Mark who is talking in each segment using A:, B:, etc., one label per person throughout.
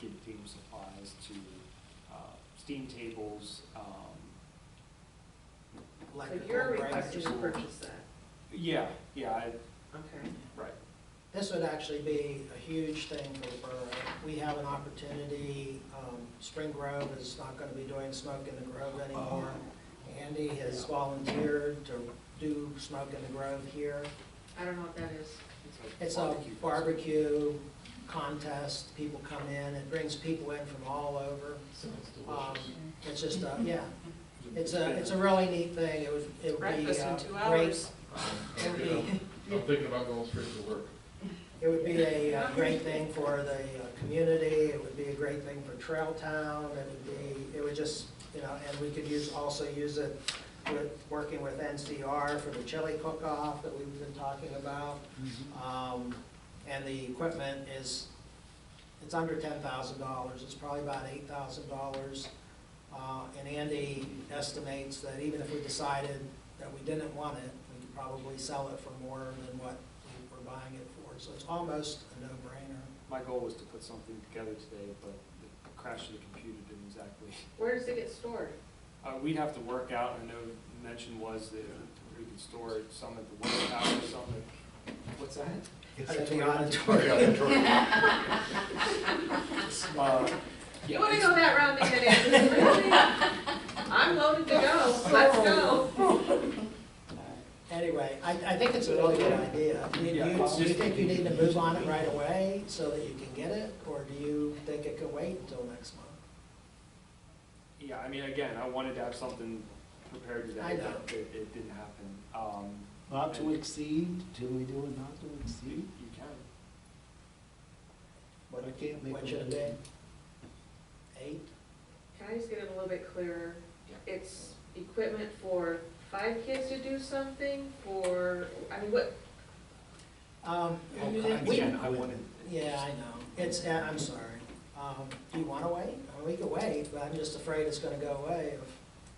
A: kid to table supplies to uh, steam tables, um,
B: Like
C: So
B: the
C: you're
B: corporate-
C: requesting to
A: Right.
C: purchase that,
A: yeah, yeah, I,
C: okay.
A: right,
B: This would actually be a huge thing for the borough. We have an opportunity, um, Spring Grove is not gonna be doing Smoke in the Grove anymore. Andy has volunteered to do Smoke in the Grove here.
C: I don't know what that is.
B: It's a barbecue contest, people come in, it brings people in from all over. Um, It's just, a- yeah, it's a, it's a really neat thing, it would, it would be.
C: Breakfast in
B: uh,
C: two
B: great-
C: hours.
B: It would be,
D: I'm thinking about going straight to work.
B: It would be a uh, great thing for the uh, community, it would be a great thing for Trail Town, it would be, it would just, you know, and we could use, also use it with, working with NCR for the chili cook-off that we've been talking about.
A: Mm-hmm.
B: Um, And the equipment is, it's under ten thousand dollars, it's probably about eight thousand dollars. Uh, And Andy estimates that even if we decided that we didn't want it, we could probably sell it for more than what we were buying it for. So it's almost a no-brainer.
A: my goal was to put something together today, but the crash of the computer didn't exactly.
C: Where does it get stored?
A: Uh, we'd have to work out, I know the mention was that we could store some at the water tower, some at, what's that?
B: At the
D: Yeah,
B: auditorium.
D: Detroit.
A: Uh,
C: You
A: yeah,
C: wanna
A: it's-
C: go that route, Nina, Nancy? Really? I'm loaded to go, let's go.
B: Anyway, I, I think it's a really good idea. Do you,
A: Yeah,
B: you-
A: I'll
B: do you
A: just-
B: think you need to move on it right away so that you can get it? Or do you think it could wait until next month?
A: Yeah, I mean, again, I wanted to have something prepared today,
B: I know.
A: but it, it didn't happen. Um,
E: Not to exceed, do we do it not to
A: you,
E: exceed?
A: you can.
B: What,
E: I can't make
B: what
E: a
B: should it
E: motion.
B: be? Eight?
C: Can I just get it a little bit clearer?
A: Yeah.
C: It's equipment for five kids to do something, for, I mean, what,
B: Um, we-
A: Again, I wanted.
B: Yeah, I know. It's, uh, I'm sorry. Um, Do you want to wait? I mean, We could wait, but I'm just afraid it's going to go away. if-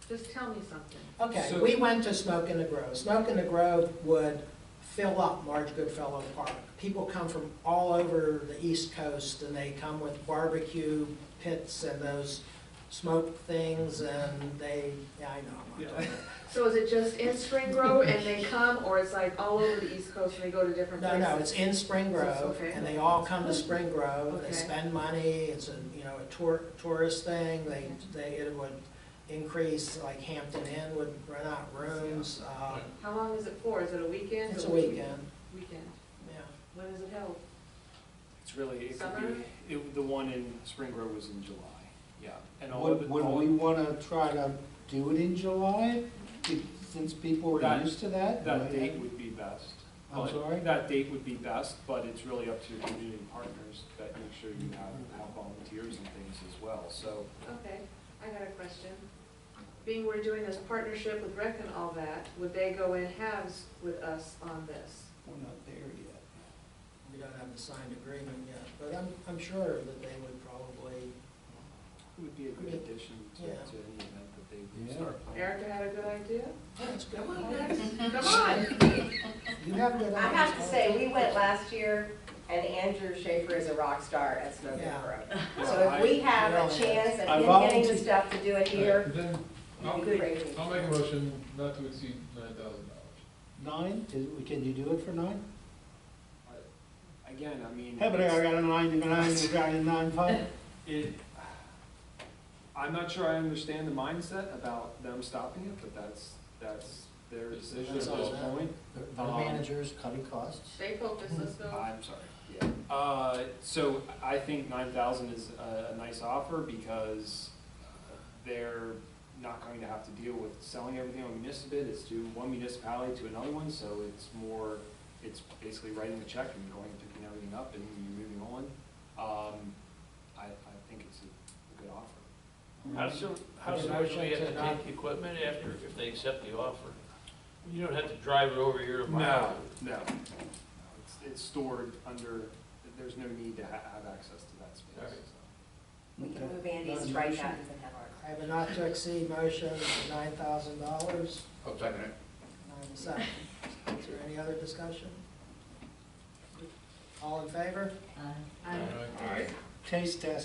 C: just tell me something.
B: Okay,
A: So-
B: we went to Smoke in the Grove. Smoke in the Grove would fill up Marge Goodfellow Park. People come from all over the East Coast and they come with barbecue pits and those smoke things and they, yeah, I know. I'm not talking-
C: So is it just in Spring Grove and they come, or it's like all over the East Coast and they go to different
B: No,
C: places?
B: no, it's in Spring Grove,
C: Okay.
B: and they all come to Spring Grove,
C: Okay.
B: they spend money, it's a, you know, a tour, tourist thing, they, they, it would increase, like Hampton Inn would rent out rooms, um,
C: How long is it for? Is it a weekend?
B: it's a
C: or-
B: weekend,
C: Weekend.
B: yeah.
C: When is it held?
A: It's really, it could
C: Summer?
A: be, it, the one in Spring Grove was in July, yeah. And all of
E: Would,
A: it,
E: would
A: all-
E: we wanna try to do it in July, If- since people are
A: That-
E: used to that?
A: that date would be best.
E: I'm
A: But
E: sorry?
A: That date would be best, but it's really up to your community partners that make sure you have, have volunteers and things as well, so.
C: Okay, I got a question. Being we're doing this partnership with Rec and all that, would they go in halves with us on this?
E: We're not there yet.
B: We don't have the signed agreement yet, but I'm, I'm sure that they would probably,
A: It would be a good addition to, to
B: Yeah.
A: any event that they would
E: Yeah.
A: start planning.
C: Erica had a good idea?
B: that's good.
C: Come on, guys, come on!
B: You have good
F: I
B: ideas.
F: have to say, we went last year, and Andrew Schaefer is a rock star at Smoking
B: Yeah.
F: Grove.
A: Well,
F: So if we
A: I-
F: have
B: Well,
F: a
B: I-
F: chance
E: I
F: of him getting
E: volunteer-
F: the stuff to do it here,
D: Then, I'll,
F: it'd be great.
D: I'll make a motion not to exceed nine thousand dollars.
E: Nine, Is- can you do it for nine?
A: Again, I mean.
E: Hey, but I got a nine, you got a nine, you got a nine five?
A: It, I'm not sure I understand the mindset about them stopping it, but that's, that's their decision at
D: That's
A: this
D: all
B: that.
A: point.
E: The the
A: Um,
E: manager's cutting costs.
C: Stay focused, let's go.
A: I'm sorry, yeah. Uh, so I think nine thousand is a, a nice offer because they're not going to have to deal with selling everything on municipal, it's to one municipality to another one, so it's more, it's basically writing the check and going and picking everything up and you're moving on. Um, I, I think it's a good offer.
G: How soon, how soon would we have to take the equipment after, if they accept the offer? You don't have to drive it over here to buy
A: No,
G: it.
A: no. It's, it's stored under, there's no need to ha- have access to that
G: All right.
A: space. so.
F: We can
E: Okay.
F: move Andy's
E: Got a
F: right
E: motion?
F: out and have our.
B: I have a not to exceed motion, nine thousand dollars,
D: I'll second it.
B: nine to seven. Is there any other discussion? All in favor?
C: I'm-
D: All right.
E: Taste test.